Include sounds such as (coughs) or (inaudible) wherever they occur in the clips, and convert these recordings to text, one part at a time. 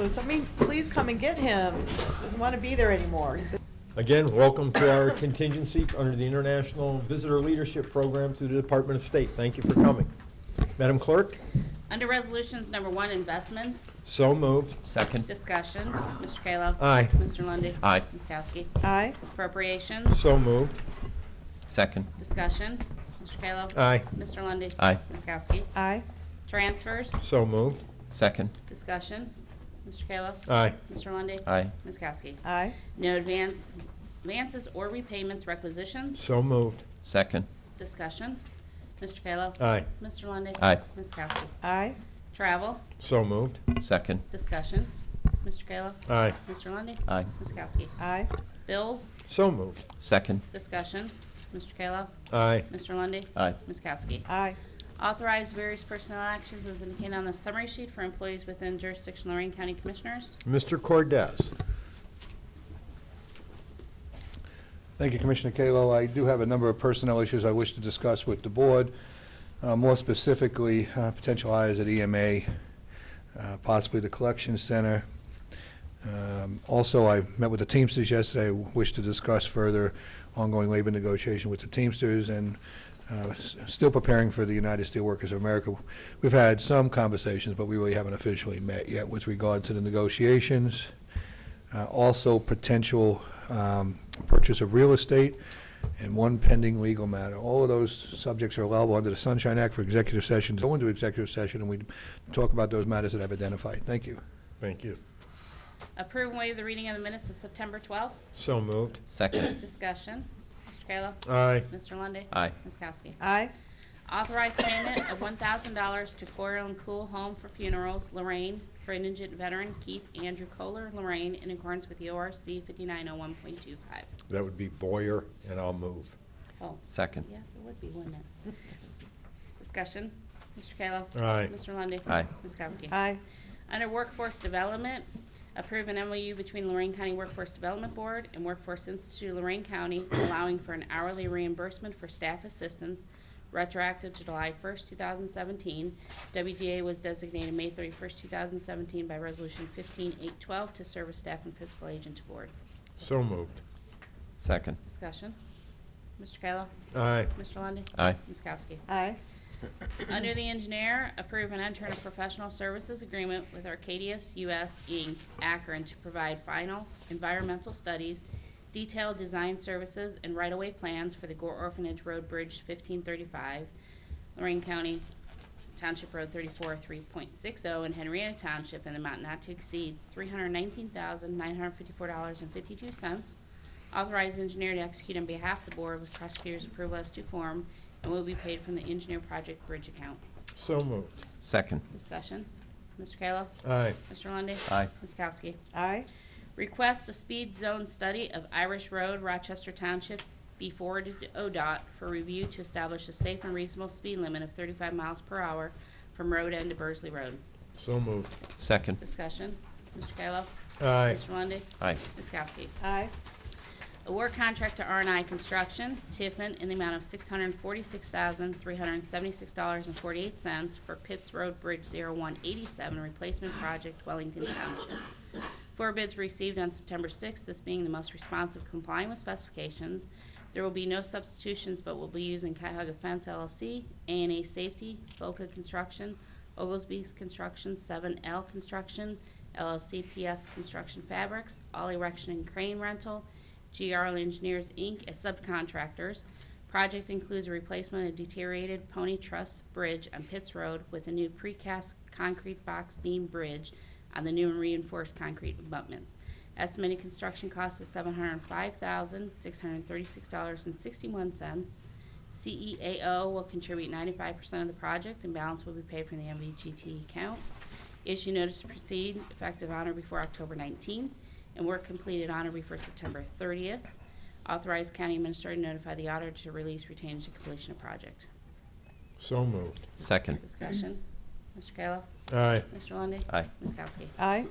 So somebody, please come and get him. He Doesn't want to be there anymore. He's been- Again, welcome to our contingency under the International Visitor Leadership Program through the Department of State. Thank you for coming. Madam Clerk, Under Resolutions Number One, Investments, so moved. Second. Discussion, Mr. Kayla. Aye. Mr. Lundy. Aye. Ms. Kowski. Aye, Appropriations, So moved. Second. Discussion, Mr. Kayla. Aye. Mr. Lundy. Aye. Ms. Kowski. aye, Transfers, So moved. Second. Discussion, Mr. Kayla. Aye. Mr. Lundy. Aye. Ms. Kowski. aye, No advance, advances or repayments requisitions, So moved. Second. Discussion, Mr. Kayla. Aye. Mr. Lundy. Aye. Ms. Kowski. aye, Travel, So moved. Second. Discussion, Mr. Kayla. Aye. Mr. Lundy. Aye. Ms. Kowski. aye, Bills, So moved. Second. Discussion, Mr. Kayla. Aye. Mr. Lundy, Aye. Ms. Kowski. aye, Authorize various personnel actions as indicated on the summary sheet for employees within jurisdiction Lorraine County Commissioners. Mr. Cordez. Thank you, Commissioner Kalo. I do have a number of personnel issues I wish to discuss with the board, uh, more specifically, uh, potential hires at EMA, uh, possibly the collection center. Um, Also, I met with the Teamsters yesterday, I wish to discuss further ongoing labor negotiation with the Teamsters and uh, s- still preparing for the United Steelworkers of America. We've had some conversations, but we really haven't officially met yet with regard to the negotiations. Uh, Also, potential um, purchase of real estate, and one pending legal matter. All of those subjects are allowable under the Sunshine Act for executive sessions. Go into executive session, and we talk about those matters that I've identified. Thank you. Thank you. Approve and waive the reading of the minutes of September 12th. So moved. Second. Discussion, Mr. Kayla. Aye. Mr. Lundy, Aye. Ms. Kowski. aye, Authorize payment of $1,000 to Coral and Cool Home for Funerals, Lorraine, for indigent veteran Keith Andrew Kohler, Lorraine, in accordance with E the ORC 5901.25. That would be Boyer, and I'll move. Oh, Second. Yes, it would be, wouldn't it? (laughs) Discussion, Mr. Kayla. Aye. Mr. Lundy. Aye. Ms. Kowski. aye, Under Workforce Development, approve an MOU between Lorraine County Workforce Development Board and Workforce Institute of Lorraine County (coughs) allowing for an hourly reimbursement for staff assistance retroactive to July 1st, 2017. WDA was designated May 31st, 2017 by Resolution 15812 to serve as staff and fiscal agent to board. So moved. Second. Discussion. Mr. Kayla. Aye. Mr. Lundy, Aye. Ms. Kowski. aye, Under the engineer, approve and enter a professional services agreement with Arcadius US Inc., Akron, to provide final environmental studies, detailed design services, and right-of-way plans for the Gore Orphanage Road Bridge 1535, Lorraine County Township Road 34, 3.60, and oh Henrietta Township, in the amount not to exceed $319,954.52. Authorize engineer to execute on behalf of the board with prosecutor's approval as to form and will be paid from the engineer project bridge account. So moved. Second. Discussion. Mr. Kayla. Aye. Mr. Lundy. Aye. Ms. Kowski. aye, Request a speed zone study of Irish Road, Rochester Township, be forwarded to ODOT for review to establish a safe and reasonable speed limit of 35 miles per hour from road end to Burzley Road. So moved. Second. Discussion. Mr. Kayla. Aye. Mr. Lundy. Aye. Ms. Kowski. aye, Award contract to r and i Construction, Tiffin, in the amount of $646,376.48 for Pitts Road Bridge 0187 Replacement Project, Wellington Township. Four bids received on September 6th, this being the most responsive complying with specifications. There will be no substitutions, but will be using Cuyahoga Fence LLC, a and A Safety, Boca Construction, Oglesby's Construction, 7L Construction, LLC PS Construction Fabrics, All Erection and Crane Rental, GRL Engineers, Inc., as subcontractors. Project includes a replacement of deteriorated Pony Truss Bridge on Pitts Road with a new precast concrete box beam bridge on the new and reinforced concrete abutments. Estimated construction cost is seven hundred and five thousand, six hundred and thirty-six dollars and sixty-one cents. CEAO will contribute ninety-five percent of the project and balance will be paid from the MVGT account. Issue notice to proceed effective on or before October 19th, and work completed on or before September 30th. Authorize county administrator to notify the auditor to release retained to completion of project. So moved. Second. Discussion. Mr. Kayla. Aye. Mr. Lundy, Aye. Ms. Kowski. aye,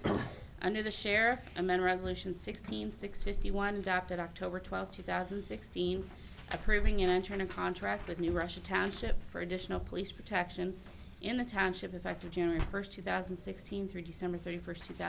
Under the Sheriff, amend Resolution 16651 adopted October 12, 2016, approving and entering a contract with New Russia Township for additional police protection in the township effective January 1, 2016 through December 31, 2016.